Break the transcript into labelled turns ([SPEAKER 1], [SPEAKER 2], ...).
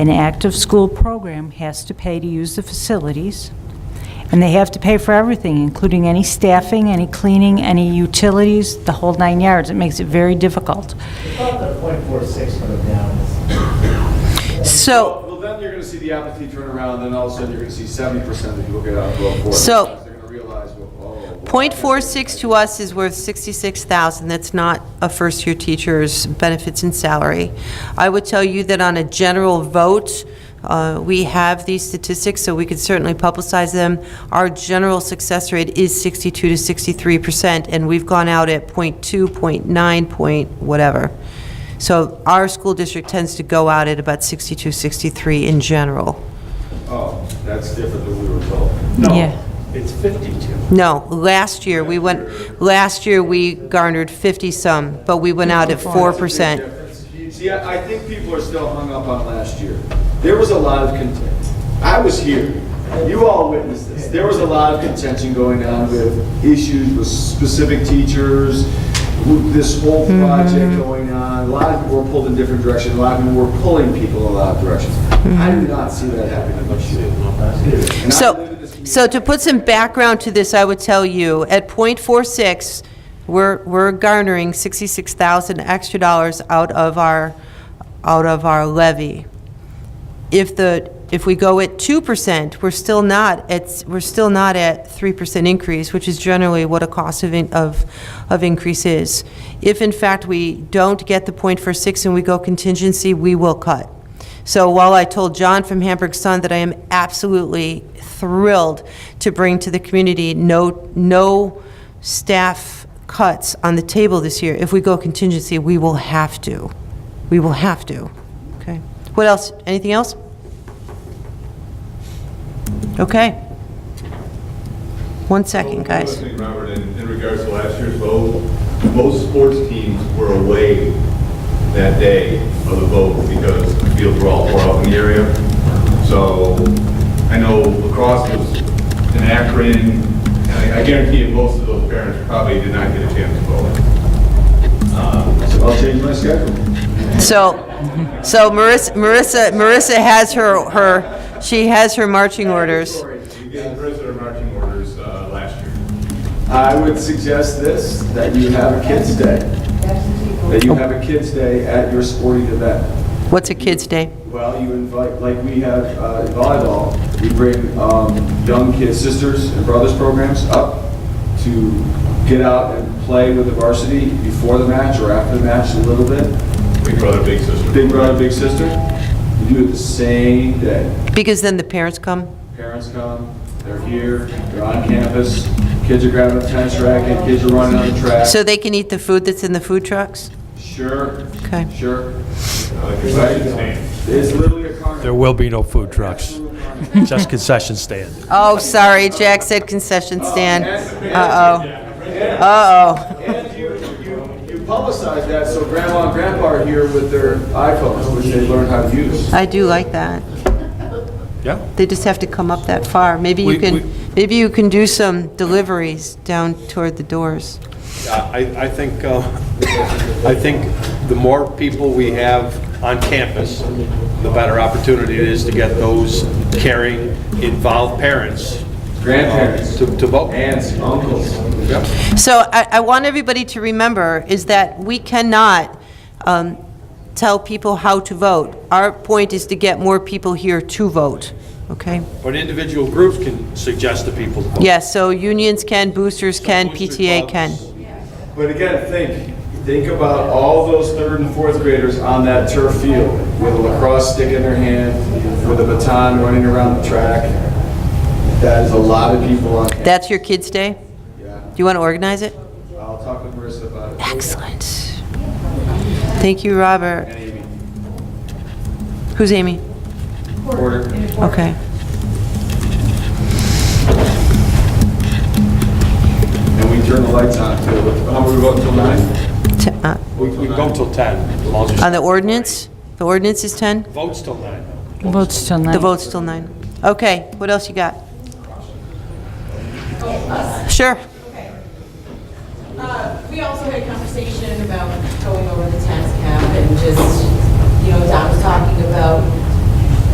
[SPEAKER 1] An active school program has to pay to use the facilities, and they have to pay for everything, including any staffing, any cleaning, any utilities, the whole nine yards. It makes it very difficult.
[SPEAKER 2] About the point four six for the down is
[SPEAKER 3] So,
[SPEAKER 4] Well, then you're gonna see the apathy turn around, then all of a sudden, you're gonna see seventy percent of people get out and vote for it.
[SPEAKER 3] So-
[SPEAKER 4] because They're gonna realize, well, oh. wow.
[SPEAKER 3] .46 to us is worth 66,000. That's not a first-year teacher's benefits and salary. I would tell you that on a general vote, uh, we have these statistics, so we could certainly publicize them. Our general success rate is 62 to 63%, and we've gone out at .2, .9, point whatever. So our school district tends to go out at about 62, 63 in general.
[SPEAKER 4] Oh, that's different than we were told.
[SPEAKER 1] Yeah.
[SPEAKER 2] No, it's fifty-two.
[SPEAKER 3] No, last year, we went, last year, we garnered 50-some, but we went out at 4%.
[SPEAKER 4] See, I, I think people are still hung up on last year. There was a lot of contention. I was here. You all witnessed this. There was a lot of contention going on with issues with specific teachers, with this whole project going on. A lot of people were pulled in different directions. A lot of people were pulling people in a lot of directions. I do not see that happening much. And I live in
[SPEAKER 3] So,
[SPEAKER 4] this community.
[SPEAKER 3] so to put some background to this, I would tell you, at .46, we're, we're garnering 66,000 extra dollars out of our, out of our levy. If the, if we go at 2%, we're still not at, we're still not at 3% increase, which is generally what a cost of, in- of, of increase is. If in fact we don't get the .46 and we go contingency, we will cut. So while I told John from Hamburg Sun that I am absolutely thrilled to bring to the community no, no staff cuts on the table this year, if we go contingency, we will have to. We will have to. Okay. What else? Anything else? Okay. One second, guys.
[SPEAKER 5] One other thing, Robert, in in regards to last year's vote, most sports teams were away that day of the vote because the fields were all far out in the area. So I know lacrosse was in Akron, and I I guarantee you, most of those parents probably did not get a chance to vote.
[SPEAKER 4] So I'll change my schedule.
[SPEAKER 3] So, so Marissa, Marissa, Marissa has her, her, she has her marching orders.
[SPEAKER 5] We gave prisoner marching orders uh, last year.
[SPEAKER 4] I would suggest this, that you have a kids' day. That you have a kids' day at your sporting event.
[SPEAKER 3] What's a kid's day?
[SPEAKER 4] Well, you invite, like we have uh, in volleyball, we bring um, young kids, sisters and brothers programs up to get out and play with the varsity before the match or after the match a little bit.
[SPEAKER 5] Big brother, big sister.
[SPEAKER 4] Big brother, big sister, you do it the same day.
[SPEAKER 3] Because then the parents come.
[SPEAKER 4] Parents come, they're here, they're on campus, kids are grabbing a tennis racket, kids are running on the track.
[SPEAKER 3] So they can eat the food that's in the food trucks?
[SPEAKER 4] Sure.
[SPEAKER 3] Okay.
[SPEAKER 4] Sure.
[SPEAKER 5] Like your second stand.
[SPEAKER 4] It's literally a carnival.
[SPEAKER 6] There will be no food trucks, just concession stand.
[SPEAKER 3] Oh, sorry, Jack said concession stand. Uh-oh. Uh-oh.
[SPEAKER 4] And you, you, you publicize that so grandma and grandpa are here with their iPhones, which they learn how to use.
[SPEAKER 3] I do like that.
[SPEAKER 6] Yeah.
[SPEAKER 3] They just have to come up that far. Maybe you
[SPEAKER 6] We-
[SPEAKER 3] can,
[SPEAKER 6] we-
[SPEAKER 3] maybe you can do some deliveries down toward the doors.
[SPEAKER 7] I, I think, uh, I think the more people we have on campus, the better opportunity it is to get those caring, involved parents uh,
[SPEAKER 4] Grandparents,
[SPEAKER 7] to to vote.
[SPEAKER 4] aunts, uncles.
[SPEAKER 3] So I, I want everybody to remember is that we cannot um, tell people how to vote. Our point is to get more people here to vote, okay?
[SPEAKER 7] But individual groups can suggest to people to vote.
[SPEAKER 3] Yes, so unions can, boosters can,
[SPEAKER 7] Booster
[SPEAKER 3] PTA can.
[SPEAKER 7] clubs.
[SPEAKER 4] But again, think, think about all those third and fourth graders on that turf field with a lacrosse stick in their hand, with a baton running around the track. That is a lot of people on campus.
[SPEAKER 3] That's your kids' day? Do you want to organize it?
[SPEAKER 4] I'll talk with Marissa about it.
[SPEAKER 3] Excellent. Thank you, Robert. Who's Amy?
[SPEAKER 4] Order.
[SPEAKER 3] Okay.
[SPEAKER 4] And we turn the lights on too. How we vote till nine?
[SPEAKER 3] T- uh,
[SPEAKER 7] We we go till 10, as long as
[SPEAKER 3] On the
[SPEAKER 7] it's-
[SPEAKER 3] ordinance? The ordinance is 10?
[SPEAKER 7] votes till 9.
[SPEAKER 1] Votes till nine.
[SPEAKER 3] The vote's till 9. Okay, what else you got? Sure.
[SPEAKER 8] Uh, We also had a conversation about going over the tax cap and just, you know, Don was talking about